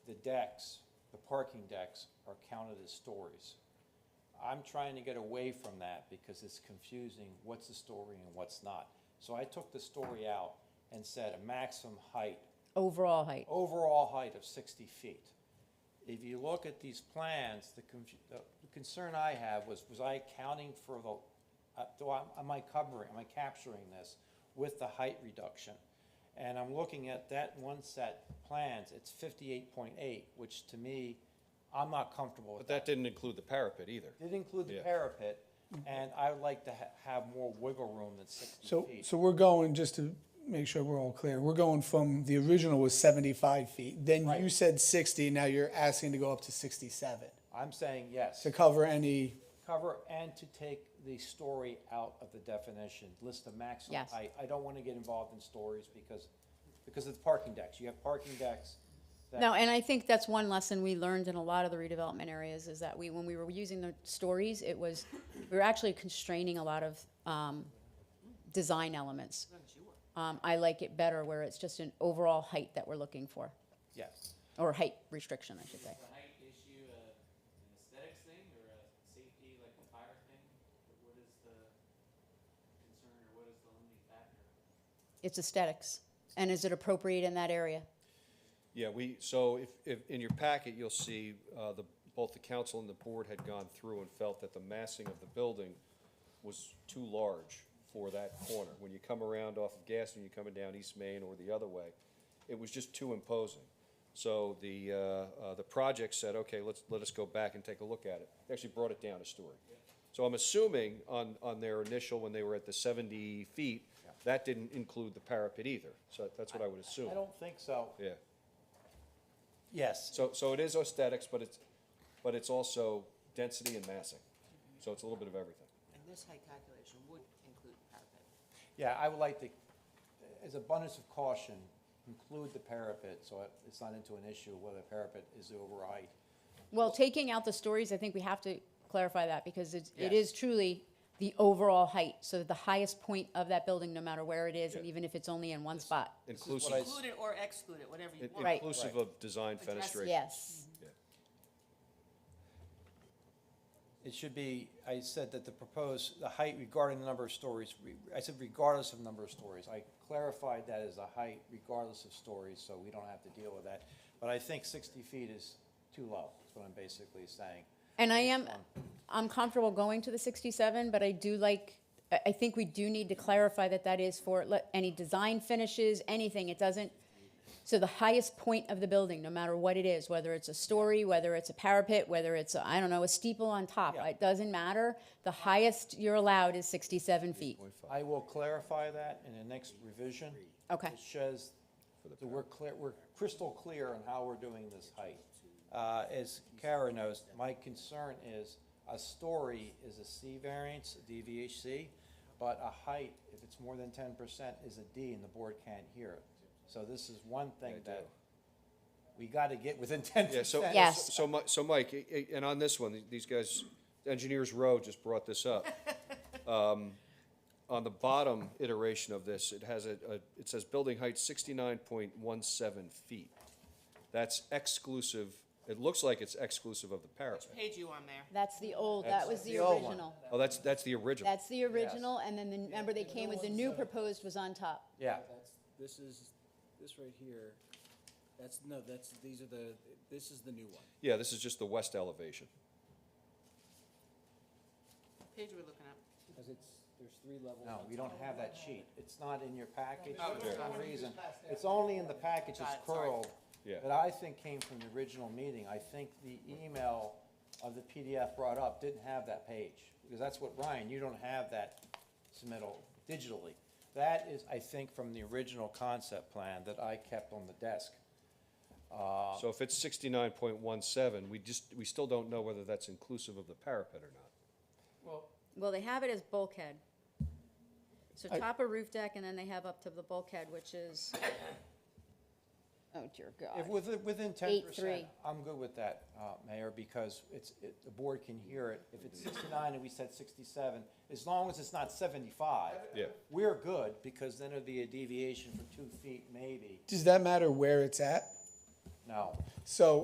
decks, the parking decks are counted as stories. I'm trying to get away from that because it's confusing what's a story and what's not. So I took the story out and said a maximum height, overall height. Oh, overall height of sixty feet. If you look at these plans, the confu- the concern I have was, was I accounting for the, uh, do I, am I covering, am I capturing this with the height reduction? And I'm looking at that one set plans, it's fifty-eight point eight, which to me, I'm not comfortable with But that didn't include the parapet either. did include the Yeah. parapet, and I would like to ha- have more wiggle room than sixty Mm-hmm. So, feet. so we're going, just to make sure we're all clear, we're going from, the original was seventy-five feet. Then you Right. said sixty, now you're asking to go up to sixty-seven I'm saying yes, to cover any, cover and to take the story out of the definition, list the maximum Yes. height. I don't want to get involved in stories because, because of the parking decks. You have parking decks that. No, and I think that's one lesson we learned in a lot of the redevelopment areas is that we, when we were using the stories, it was, we were actually constraining a lot of, um, design elements. Um, I like it better where it's just an overall height that we're looking for, Yes. or height restriction, I should say. a height issue, uh, an aesthetics thing, or a safety, like a fire thing? Or What is the concern, or what is the limiting factor? It's aesthetics. And is it appropriate in that area? Yeah, we, so if, if, in your packet, you'll see, uh, the, both the council and the board had gone through and felt that the massing of the building was too large for that corner. When you come around off of Gaston, you're coming down East Main or the other way, it was just too imposing. So the, uh, uh, the project said, okay, let's, let us go back and take a look at it. They Actually brought it down a story. So I'm assuming on, on their initial, when they were at the seventy feet, that didn't include the parapet either. So that's what I would assume, I don't think so. yeah. Yes. So, so it is aesthetics, but it's, but it's also density and massing. So it's a little bit of everything. And this height calculation would include parapet. Yeah, I would like to, as abundance of caution, include the parapet so it- it's not into an issue whether the parapet is over height. Well, taking out the stories, I think we have to clarify that because it's, it Yes. is truly the overall height. So the highest point of that building, no matter where it is, and Yeah. even if it's only in one spot. is what Inclusive, I- Include it or exclude it, whatever you in- want. Right. inclusive of design Address- fenestration. Yes. It should be, I said that the proposed, the height regarding the number of stories, re- I said regardless of number of stories. I clarified that as a height regardless of stories, so we don't have to deal with that. But I think sixty feet is too low, is what I'm basically saying. And I am, I'm comfortable going to the sixty-seven, but I do like, I, I think we do need to clarify that that is for, let, any design finishes, anything, it doesn't. So the highest point of the building, no matter what it is, whether it's a story, whether it's a parapet, whether it's, I don't know, a steeple on top, Yeah. it doesn't matter. The highest you're allowed is sixty-seven feet. I will clarify that in the next revision. Okay. It shows that we're clear, we're crystal clear on how we're doing this height. Uh, as Kara knows, my concern is a story is a C variance, a DVHC, but a height, if it's more than ten percent, is a D and the board can't hear it. So this is one thing They that do. we gotta get within ten Yeah, so, percent. Yes. so Mi- so Mike, i- i- and on this one, these guys, Engineers Row just brought this up. Um, On the bottom iteration of this, it has a, a- it says building height sixty-nine point one seven feet. That's exclusive, it looks like it's exclusive of the parapet. Which page you on there? That's the old, that was the the old one. original. Oh, that's, that's the original. That's the original, and then the, remember they came with the new proposed was on top. Yeah, That's, this is, this right here, that's, no, that's, these are the, this is the new one. Yeah, this is just the west elevation. Page we're looking at. Because it's, there's three levels. no, on we top. don't have that sheet. It's not in your package Oh, for it's some not. reason. It's only in the package Got that's it, sorry. curled. Yeah. That I think came from the original meeting. I think the email of the PDF brought up didn't have that page. Because that's what, Ryan, you don't have that submittal digitally. That is, I think, from the original concept plan that I kept on the desk. So if it's sixty-nine point one seven, we just, we still don't know whether that's inclusive of the parapet or not. Well, they have it as bulkhead. So top of roof deck, and then they have up to the bulkhead, which is, oh dear If God. within, within ten Eight, percent, three. I'm good with that, uh, Mayor, because it's, it, the board can hear it. If it's sixty-nine and we said sixty-seven, as long as it's not seventy-five. Yeah. We're good, because then it'd be a deviation for two feet maybe. does that matter where it's at? No, So